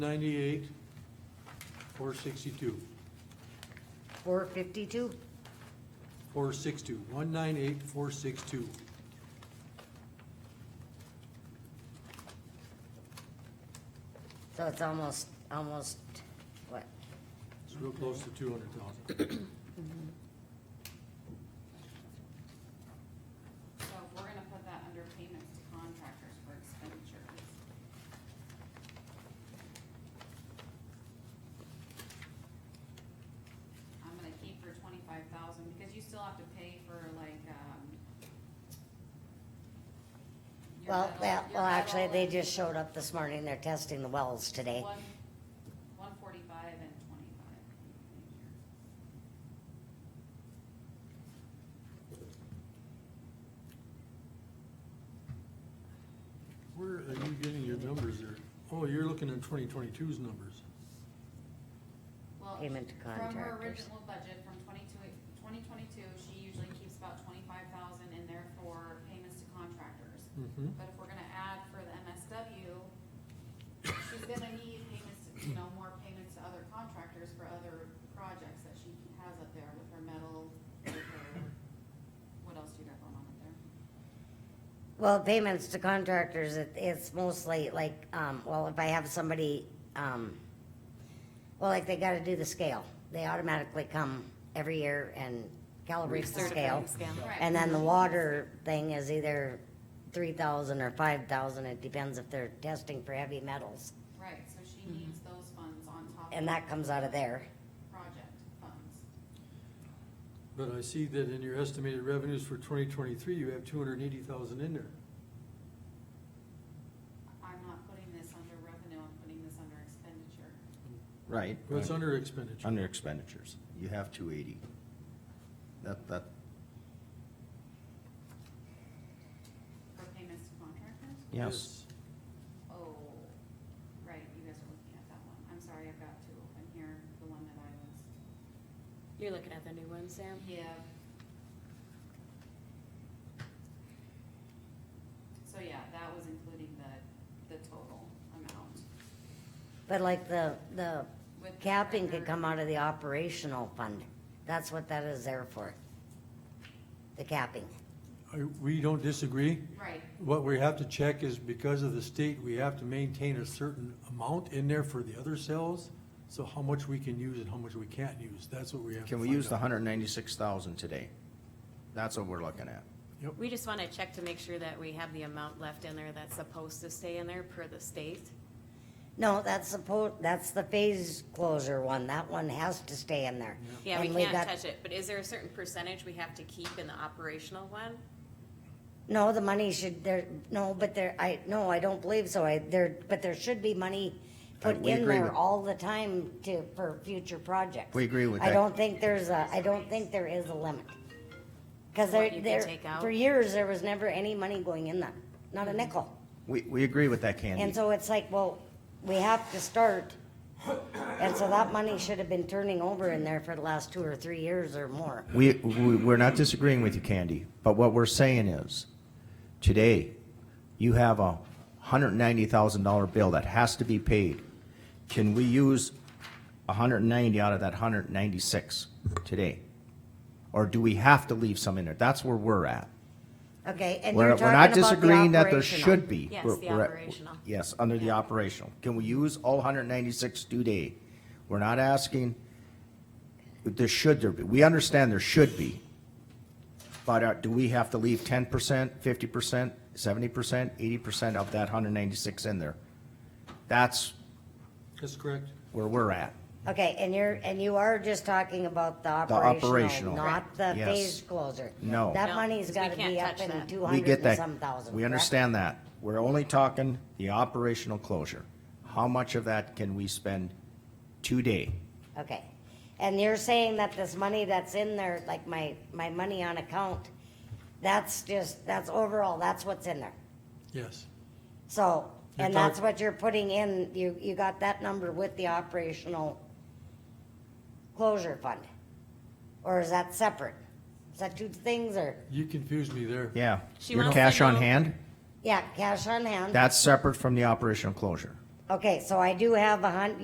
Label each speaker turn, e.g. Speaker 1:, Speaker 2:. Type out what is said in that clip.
Speaker 1: Ninety-eight, four sixty-two,
Speaker 2: Four fifty-two,
Speaker 1: four six-two, one nine eight, four six-two.
Speaker 2: so it's almost, almost, what,
Speaker 1: It's real close to two hundred thousand.
Speaker 3: So we're gonna put that under payments to contractors for expenditures. I'm gonna keep for twenty-five thousand, because you still have to pay for like, um. your
Speaker 2: well,
Speaker 3: metal-
Speaker 2: well,
Speaker 3: your
Speaker 2: well, actually,
Speaker 3: metal
Speaker 2: they
Speaker 3: and
Speaker 2: just showed up this morning, they're testing the wells today.
Speaker 3: One, one forty-five and twenty-five.
Speaker 1: Where are you getting your numbers there? Oh, you're looking at 2022's numbers.
Speaker 3: Well,
Speaker 2: Payment to
Speaker 3: From her
Speaker 2: contractors.
Speaker 3: original budget from 22 2022, she usually keeps about twenty-five thousand in there for payments to contractors.
Speaker 1: Mm-hmm.
Speaker 3: But if we're gonna add for the MSW, she's gonna need payments, you know, more payments to other contractors for other projects that she has up there with her metal, with her, what else do you got going on up there?
Speaker 2: Well, payments to contractors, it, it's mostly like, um, well, if I have somebody, um, well, like they gotta do the scale, they automatically come every year and calibrate the scale. And then the water thing is either three thousand or five thousand, it depends if they're testing for heavy metals,
Speaker 3: Right, so she needs those funds on top
Speaker 2: Mm-hmm. and
Speaker 3: of
Speaker 2: that comes out of there.
Speaker 3: project funds.
Speaker 1: But I see that in your estimated revenues for 2023, you have 280,000 in there.
Speaker 3: I'm not putting this under revenue, I'm putting this under expenditure.
Speaker 4: Right.
Speaker 1: That's under expenditure.
Speaker 4: Under expenditures. You have two eighty. That, that,
Speaker 3: For payments to contractors?
Speaker 4: yes.
Speaker 3: Oh, right, you guys are looking at that one. I'm sorry, I've got two open here, the one that I was.
Speaker 5: You're looking at the new one, Sam?
Speaker 3: Yeah. So yeah, that was including the, the total amount.
Speaker 2: But like the, the
Speaker 3: With the
Speaker 2: capping could
Speaker 3: record-
Speaker 2: come out of the operational fund, that's what that is there for. The capping,
Speaker 1: I- We don't disagree.
Speaker 3: Right,
Speaker 1: What we have to check is because of the state, we have to maintain a certain amount in there for the other cells. So how much we can use and how much we can't use, that's what we have to
Speaker 4: Can we
Speaker 1: find
Speaker 4: use the
Speaker 1: out.
Speaker 4: hundred and ninety-six thousand today? That's what we're looking at.
Speaker 1: Yep.
Speaker 5: We just wanna check to make sure that we have the amount left in there that's supposed to stay in there per the state.
Speaker 2: no, that's supposed, that's the phase closure one, that one has to stay in there.
Speaker 5: Yeah, we
Speaker 2: And we
Speaker 5: can't
Speaker 2: got-
Speaker 5: touch it, but is there a certain percentage we have to keep in the operational one?
Speaker 2: No, the money should, there, no, but there, I, no, I don't believe so, I, there, but there should be money
Speaker 4: Uh,
Speaker 2: put
Speaker 4: we
Speaker 2: in
Speaker 4: agree
Speaker 2: there
Speaker 4: with-
Speaker 2: all the time to, for future projects.
Speaker 4: We agree with
Speaker 2: I
Speaker 4: that.
Speaker 2: don't think there's a, I don't think there is a limit. Cause
Speaker 5: To what
Speaker 2: there,
Speaker 5: you can
Speaker 2: there,
Speaker 5: take out? Mm-hmm.
Speaker 2: for years, there was never any money going in there, not a nickel.
Speaker 4: We, we agree with that,
Speaker 2: And
Speaker 4: Candy.
Speaker 2: so it's like, well, we have to start, and so that money should have been turning over in there for the last two or three years or more.
Speaker 4: We, we, we're not disagreeing with you, Candy, but what we're saying is, today, you have a hundred and ninety thousand dollar bill that has to be paid. Can we use a hundred and ninety out of that hundred and ninety-six today? Or do we have to leave some in there? That's where we're at.
Speaker 2: Okay, and
Speaker 4: We're,
Speaker 2: you're
Speaker 4: we're
Speaker 2: talking
Speaker 4: not
Speaker 2: about the
Speaker 4: disagreeing that there
Speaker 2: operational.
Speaker 4: should be.
Speaker 5: Yes,
Speaker 4: We're-
Speaker 5: the
Speaker 4: we're at-
Speaker 5: operational.
Speaker 4: Yes, under the
Speaker 5: Yeah.
Speaker 4: operational. Can we use all hundred ninety-six today? We're not asking, there should there be, we understand there should be. But uh, do we have to leave ten percent, fifty percent, seventy percent, eighty percent of that hundred ninety-six in there? That's
Speaker 1: That's correct.
Speaker 4: where we're at.
Speaker 2: Okay, and you're, and you are just talking about the operational,
Speaker 4: operational.
Speaker 2: not the
Speaker 4: Yes.
Speaker 2: phase closer?
Speaker 4: No.
Speaker 2: That
Speaker 5: No,
Speaker 2: money's
Speaker 5: because we
Speaker 2: gotta
Speaker 5: can't
Speaker 2: be up
Speaker 5: touch
Speaker 2: in
Speaker 5: that.
Speaker 2: two
Speaker 4: We
Speaker 2: hundred
Speaker 4: get
Speaker 2: and
Speaker 4: that.
Speaker 2: some thousand.
Speaker 4: We
Speaker 2: correct?
Speaker 4: understand that. We're only talking the operational closure. How much of that can we spend today?
Speaker 2: Okay, and you're saying that this money that's in there, like my, my money on account, that's just, that's overall, that's what's in there?
Speaker 1: Yes.
Speaker 2: So,
Speaker 1: You're
Speaker 2: and that's
Speaker 1: talk-
Speaker 2: what you're putting in, you, you got that number with the operational closure fund? Or is that separate? Is that two things or,
Speaker 1: You confused me there.
Speaker 4: Yeah.
Speaker 5: She
Speaker 4: Your
Speaker 5: wants to
Speaker 4: cash on
Speaker 5: know-
Speaker 4: hand,
Speaker 2: yeah, cash on hand?
Speaker 4: that's separate from the operational closure.
Speaker 2: Okay, so I do have a hun,